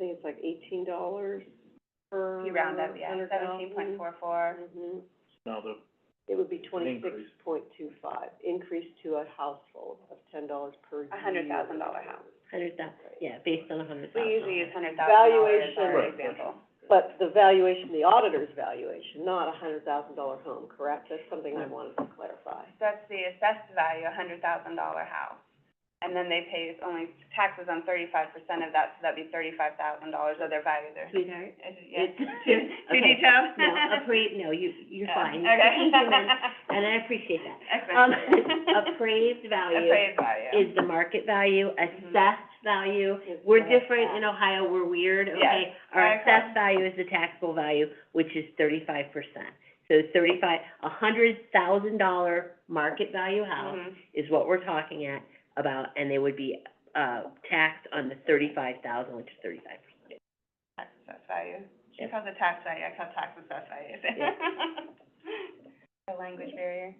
it's like eighteen dollars per You round up, yeah, hundred seventeen point four four. Mm-hmm. Now, the, It would be An twenty-six increase. point two five, increase to a household of ten dollars per year. A hundred thousand dollar house. Hundred thou- yeah, based on a hundred We thousand. usually use hundred thousand dollars as our Valuation. example. But the valuation, the auditor's valuation, not a hundred thousand dollar home, correct? That's something Mm. I wanted to clarify. That's the assessed value, a hundred thousand dollar house. And then they pay only taxes on thirty-five percent of that, so that'd be thirty-five thousand dollars of their value there. Sweetheart. Is it- Yeah, It's- too, too okay. detailed? No, appra- no, you, you're Yeah, fine. Okay. And I appreciate that. Um, Excellent. appraised value Appraised Mm-hmm. value. is the market value, assessed value. It's We're not different that. in Ohio, we're weird, Yes. okay? Our I agree. assessed value is the taxable value, which is thirty-five percent. So thirty-five, a hundred thousand dollar market value house Mhm. is what we're talking at about, and they would be, uh, taxed on the thirty-five thousand, which is thirty-five percent. Tax assessed value. She Yes. calls it tax value, I call it tax assessed value. A language barrier.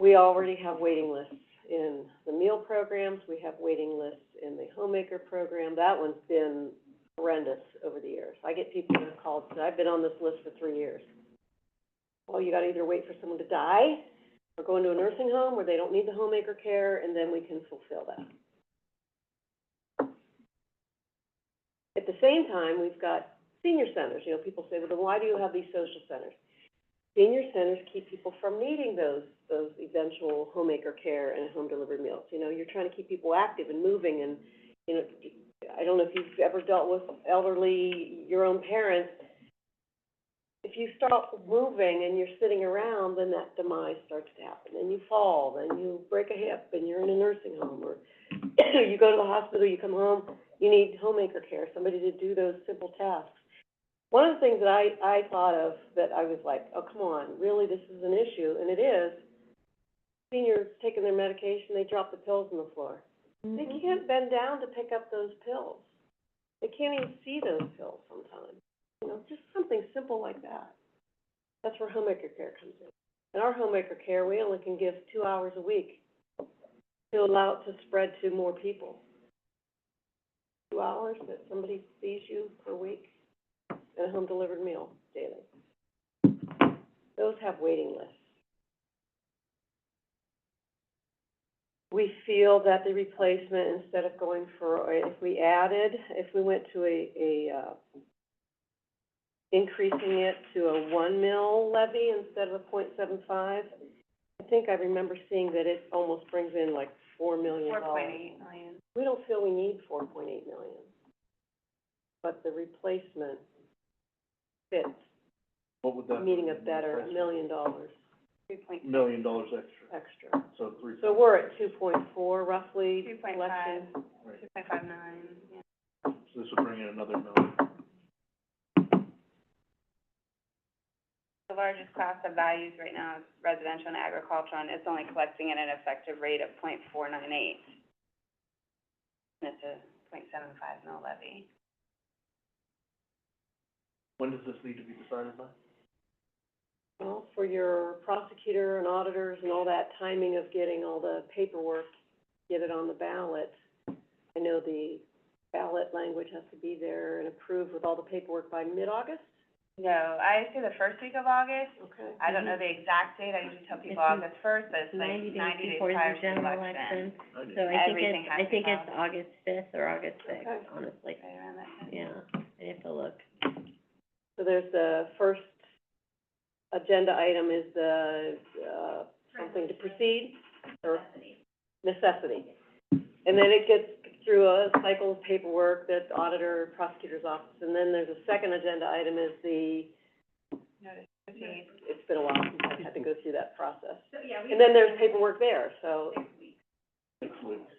We already have waiting lists in the meal programs, we have waiting lists in the homemaker program. That one's been horrendous over the years. I get people that have called, and say, I've been on this list for three years. Well, you gotta either wait for someone to die, or go into a nursing home where they don't need the homemaker care, and then we can fulfill that. At the same time, we've got senior centers, you know, people say, well, then why do you have these social centers? senior centers keep people from needing those, those eventual homemaker care and home delivered meals. You know, you're trying to keep people active and moving and, you know, I don't know if you've ever dealt with elderly, your own parents. If you stop moving and you're sitting around, then that demise starts to happen. Then you fall, then you break a hip and you're in a nursing home or you go to the hospital, you come home, you need homemaker care, somebody to do those simple tasks. One of the things that I, I thought of that I was like, oh, come on, really, this is an issue, and it is. Seniors taking their medication, they drop the pills on the floor. They can't bend down to pick up those pills. They can't even see those pills sometimes. You know, just something simple like that. That's where homemaker care comes in. In our homemaker care, we only can give two hours a week to allow it to spread to more people. Two hours that somebody sees you per week and a home-delivered meal daily. Those have waiting lists. We feel that the replacement, instead of going for, if we added, if we went to a, a, uh, increasing it to a one mil levy instead of a point seven five, I think I remember seeing that it almost brings in like four million Four dollars. point eight million. We don't feel we need four point eight million, but the replacement fits, what would that? meaning be? a better million dollars Two point Mm. Million dollars extra, extra. so three. So we're at two point four roughly. Two point collection. five. Right, two point five nine, yeah. so this would bring in another million. The largest class of values right now is residential and agricultural, and it's only collecting at an effective rate of point four nine eight. And it's a point seven five mil levy. When does this need to be decided by? Well, for your prosecutor and auditors and all that timing of getting all the paperwork, get it on the ballot. I know the ballot language has to be there and approved with all the paperwork by mid-August, No, I say the first week of August, okay? I don't know the exact date, I usually tell people Mm-hmm. It's August first, but it's like Ninety ninety days days before prior the to the election. general election, I so did. I think Everything it's, has I to think be it's August fifth or August Okay. sixth, honestly, Right around that time. yeah, I have to look. So there's the first agenda item is the, uh, something to proceed, or? Necessity. And then it gets through a cycle of paperwork, that auditor, prosecutor's office, and then there's a second agenda item is the, Notice to Mm-hmm. proceed. it's been a while since I've had to go through that process. And then there's paperwork there, so, Six weeks.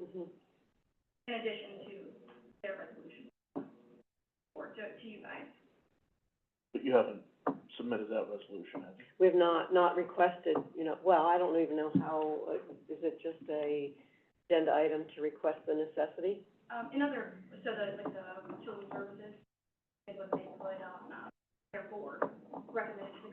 mhm. But you haven't submitted that resolution, have you? we have not, not requested, you know, well, I don't even know how, uh, is it just a agenda item to request the necessity? Um, in other, so the, like, the children's services is what they put on, uh, their um, board, recommended